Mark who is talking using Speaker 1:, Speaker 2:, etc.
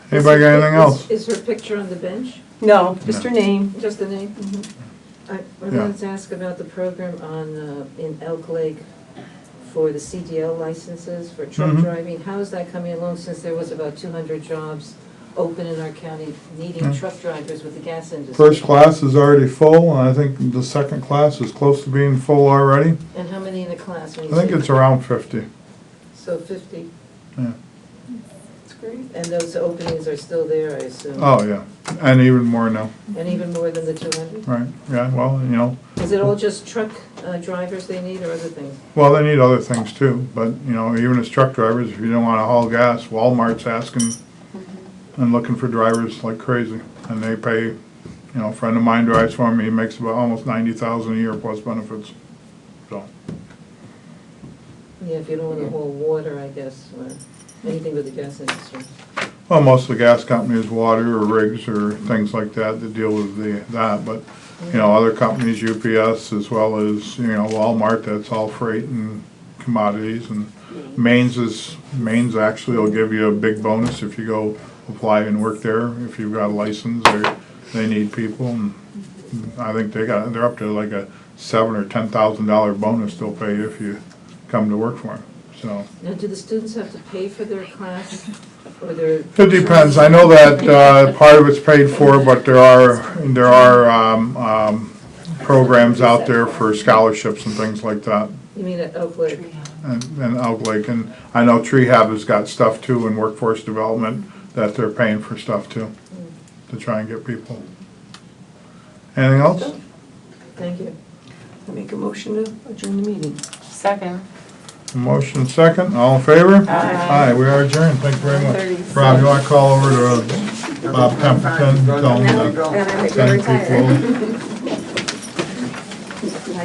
Speaker 1: Anybody got anything else?
Speaker 2: Is her picture on the bench,
Speaker 3: No, just her name.
Speaker 2: just the name? Mm-hmm. I I
Speaker 1: Yeah.
Speaker 2: wanted to ask about the program on, uh, in Elk Lake for the CDL licenses for truck
Speaker 1: Mhm.
Speaker 2: driving. How is that coming along since there was about 200 jobs open in our county needing
Speaker 1: Yeah.
Speaker 2: truck drivers with the gas industry?
Speaker 1: Mm. First class is already full, and I think the second class is close to being full already.
Speaker 2: And how many in the class?
Speaker 1: I think it's around fifty.
Speaker 2: So 50,
Speaker 1: Yeah.
Speaker 3: That's great.
Speaker 2: and those openings are still there, I assume?
Speaker 1: Oh, yeah, and even more now,
Speaker 2: And even more than the 200?
Speaker 1: right, yeah, well, you know,
Speaker 2: Is it all just truck uh, drivers they need or other things?
Speaker 1: well, they need other things too, but, you know, even as truck drivers, if you don't wanna haul gas, Walmart's asking and looking for drivers like crazy, and they pay, you know, a friend of mine drives for me, he makes about almost ninety thousand a year plus benefits, so.
Speaker 2: Yeah, if you don't want to haul water, I guess, or anything with the gas industry.
Speaker 1: Well, most of the gas companies, water or rigs or things like that that deal with the, that, but, you know, other companies, UPS as well as, you know, Walmart, that's all freight and commodities and Maine's is, Maine's actually will give you a big bonus if you go apply and work there, if you've got a license or they need people and I think they got, they're up to like a seven or ten thousand dollar bonus they'll pay you if you come to work for them, so.
Speaker 2: Now, do the students have to pay for their class or their?
Speaker 1: It depends. I know that uh, part of it's paid for, but there are, there are um, um, programs out there for scholarships and things like that
Speaker 2: You mean uh, oh, at Oak Lake?
Speaker 1: and and Elk Lake. And I know Trehab has got stuff too in workforce development that they're paying for stuff too, to try and get people. Anything else?
Speaker 2: Thank you.
Speaker 3: I make a motion to adjourn the meeting.
Speaker 4: Second.
Speaker 1: Motion second, all in favor?
Speaker 4: Aye.
Speaker 1: Aye, we are adjourned. Thank you very much. Rob, you want to call over to uh, Bob Templeton, tell him to send people